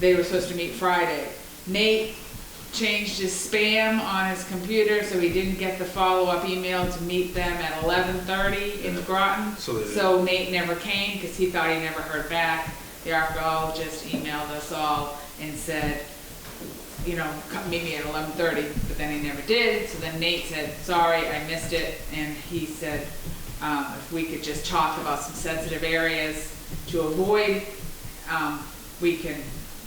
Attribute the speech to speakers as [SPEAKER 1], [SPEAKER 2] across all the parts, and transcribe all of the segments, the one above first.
[SPEAKER 1] they were supposed to meet Friday. Nate changed his spam on his computer, so he didn't get the follow-up email to meet them at eleven thirty in Groton.
[SPEAKER 2] So they-
[SPEAKER 1] So Nate never came, because he thought he never heard back. The archaeologist emailed us all and said, you know, come meet me at eleven thirty, but then he never did, so then Nate said, sorry, I missed it, and he said, um, if we could just talk about some sensitive areas to avoid, um, we can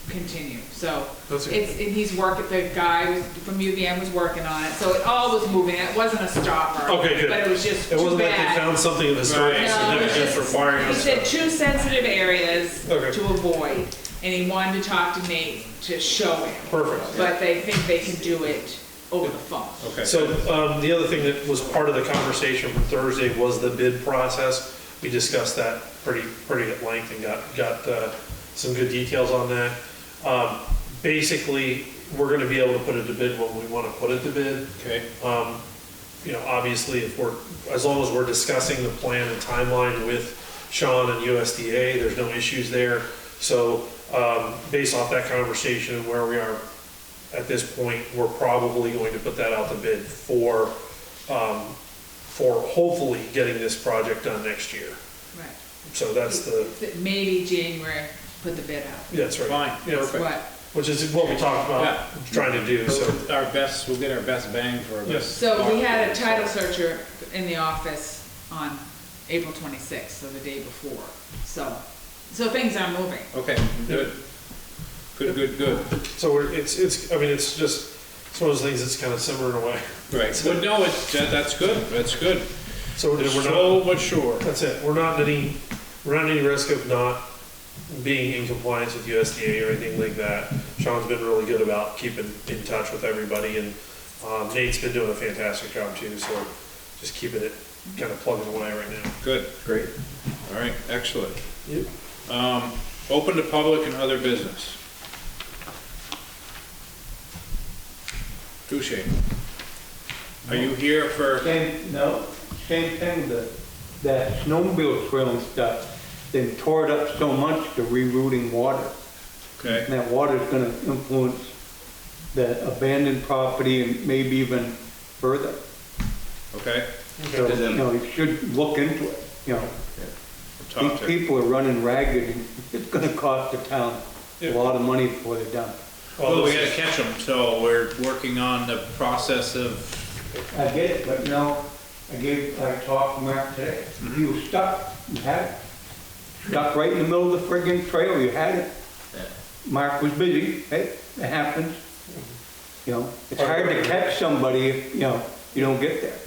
[SPEAKER 1] continue, so.
[SPEAKER 2] That's okay.
[SPEAKER 1] It's, and he's working, the guy was- from UVM was working on it, so it all was moving, it wasn't a stopper.
[SPEAKER 3] Okay, good.
[SPEAKER 1] But it was just
[SPEAKER 3] It
[SPEAKER 1] too
[SPEAKER 3] wasn't like they
[SPEAKER 1] bad.
[SPEAKER 3] found something of historic
[SPEAKER 1] Right. No, it's
[SPEAKER 3] significance
[SPEAKER 1] just-
[SPEAKER 3] requiring
[SPEAKER 1] He
[SPEAKER 3] us
[SPEAKER 1] said
[SPEAKER 3] to.
[SPEAKER 1] two sensitive areas
[SPEAKER 3] Okay.
[SPEAKER 1] to avoid, and he wanted to talk to Nate to show him.
[SPEAKER 3] Perfect.
[SPEAKER 1] But they think they can do it over the phone.
[SPEAKER 4] Okay.
[SPEAKER 3] So um, the other thing that was part of the conversation from Thursday was the bid process. We discussed that pretty, pretty at length and got, got uh, some good details on that. Um, Basically, we're going to be able to put it to bid when we want to put it to bid.
[SPEAKER 4] Okay.
[SPEAKER 3] Um, You know, obviously, if we're, as long as we're discussing the plan and timeline with Sean and USDA, there's no issues there. So um, based off that conversation and where we are at this point, we're probably going to put that out to bid for, um, for hopefully getting this project done next year.
[SPEAKER 1] Right.
[SPEAKER 3] So that's the,
[SPEAKER 1] Maybe January, put the bid out.
[SPEAKER 3] that's right.
[SPEAKER 4] Fine,
[SPEAKER 3] Yeah,
[SPEAKER 4] perfect.
[SPEAKER 1] What?
[SPEAKER 3] Which is what we talked
[SPEAKER 4] Yeah.
[SPEAKER 3] about trying to do, so.
[SPEAKER 4] Our best, we'll get our best bang for our best.
[SPEAKER 1] So we had a
[SPEAKER 4] buck.
[SPEAKER 1] title searcher in the office on April twenty-sixth, so the day before, so, so things are moving.
[SPEAKER 4] Okay, good. Good, good, good.
[SPEAKER 3] So we're, it's, it's, I mean, it's just, it's one of those things that's kind of simmering away.
[SPEAKER 4] Right. Well, no, it's, that- that's good, that's good.
[SPEAKER 3] So we're we're not,
[SPEAKER 4] Slow but sure.
[SPEAKER 3] that's it, we're not at any, we're not at any risk of not being in compliance with USDA or anything like that. Sean's been really good about keeping in touch with everybody, and um, Nate's been doing a fantastic job too, so just keeping it kind of plugging away right now.
[SPEAKER 4] Good. Great. All right, excellent.
[SPEAKER 3] Yep.
[SPEAKER 4] Um, open to public and other business. Touche. Are you here for,
[SPEAKER 5] Same, no, same thing, the, that snowmobile trail and stuff, they tore it up so much, they're rerouting water.
[SPEAKER 4] okay,
[SPEAKER 5] And that water's gonna influence the abandoned property and maybe even further.
[SPEAKER 4] okay?
[SPEAKER 5] So, you know, you should look into it, you know.
[SPEAKER 4] Talk
[SPEAKER 5] These
[SPEAKER 4] to,
[SPEAKER 5] people are running ragged, and it's gonna cost the town a lot of money before they're done.
[SPEAKER 3] Well,
[SPEAKER 4] well, we
[SPEAKER 3] this
[SPEAKER 4] gotta
[SPEAKER 3] is-
[SPEAKER 4] catch them, so we're working on the process of
[SPEAKER 5] I get it, but no, I gave, I talked to Mark today, you were stuck, you had it. Stuck right in the middle of the friggin' trail, you had it. Mark was busy, hey, it happens. You know, it's hard to catch somebody if, you know, you don't get there.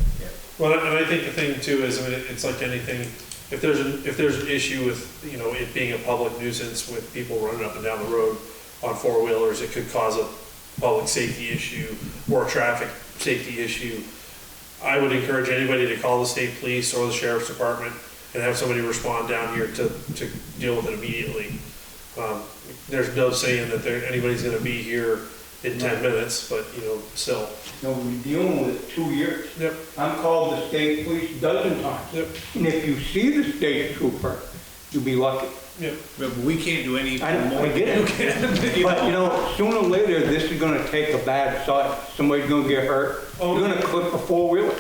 [SPEAKER 3] Well, and I think the thing too is, I mean, it's like anything, if there's, an if there's an issue with, you know, it being a public nuisance with people running up and down the road on four wheelers, it could cause a public safety issue or a traffic safety issue. I would encourage anybody to call the state police or the sheriff's department and have somebody respond down here to, to deal with it immediately. Um, There's no saying that there, anybody's gonna be here in ten minutes, but, you know, still.
[SPEAKER 5] You know, we're dealing with it two years.
[SPEAKER 3] Yep.
[SPEAKER 5] I'm called the state police a dozen times.
[SPEAKER 3] Yep.
[SPEAKER 5] And if you see the state trooper, you'll be lucky.
[SPEAKER 3] Yep.
[SPEAKER 4] But we can't do any
[SPEAKER 5] I don't,
[SPEAKER 4] more.
[SPEAKER 5] I get it. But you know, sooner or later, this is gonna take a bad side. Somebody's gonna get hurt. You're gonna clip a four-wheeler.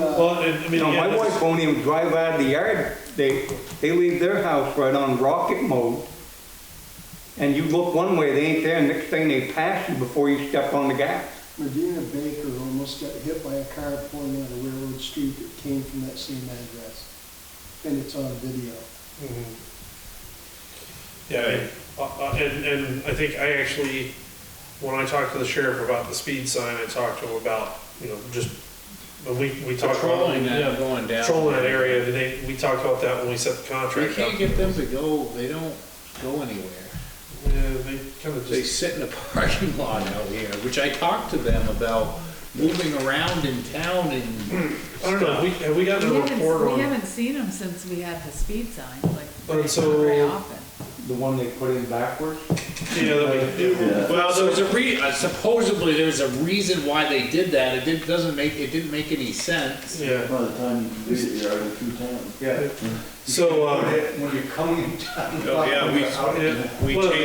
[SPEAKER 3] Well, and, I mean.
[SPEAKER 5] You know,
[SPEAKER 3] again,
[SPEAKER 5] my
[SPEAKER 3] this is-
[SPEAKER 5] wife won't even drive out of the yard. They, they leave their house right on rocket mode. And you look one way, they ain't there, and next thing they pass you before you step on the gas.
[SPEAKER 6] Regina Baker almost got hit by a car pulling on a railroad street that came from that same address. And it's on video.
[SPEAKER 3] Yeah, I- uh, uh, and, and I think I actually, when I talked to the sheriff about the speed sign, I talked to him about, you know, just, when we, we talked about.
[SPEAKER 4] Patrolling
[SPEAKER 3] Yeah,
[SPEAKER 4] that, going down.
[SPEAKER 3] Patrolling that area, and they, we talked about that when we set the
[SPEAKER 4] We
[SPEAKER 3] contract up.
[SPEAKER 4] can't get them to go, they don't go anywhere.
[SPEAKER 3] Yeah, they kind of
[SPEAKER 4] They
[SPEAKER 3] just,
[SPEAKER 4] sit in the parking lot out here, which I talked to them about moving around in town and,
[SPEAKER 3] I don't know, we, have we gotten
[SPEAKER 1] We
[SPEAKER 3] a report
[SPEAKER 1] haven't, we
[SPEAKER 3] on,
[SPEAKER 1] haven't seen them since we had the speed sign, like,
[SPEAKER 3] But
[SPEAKER 1] very-
[SPEAKER 3] so-
[SPEAKER 1] very often.
[SPEAKER 5] The one they put in backwards?
[SPEAKER 3] you know, that we,
[SPEAKER 4] well, there was a re, uh, supposedly there's a reason why they did that, it didn't, doesn't make, it didn't make any sense.
[SPEAKER 3] yeah,
[SPEAKER 7] By the time you can do it, you're already through town.
[SPEAKER 5] Yeah.
[SPEAKER 3] so, um.
[SPEAKER 5] When you're coming down.
[SPEAKER 4] Oh, yeah, we-
[SPEAKER 5] Out.
[SPEAKER 3] yeah,
[SPEAKER 4] We
[SPEAKER 3] well,
[SPEAKER 4] changed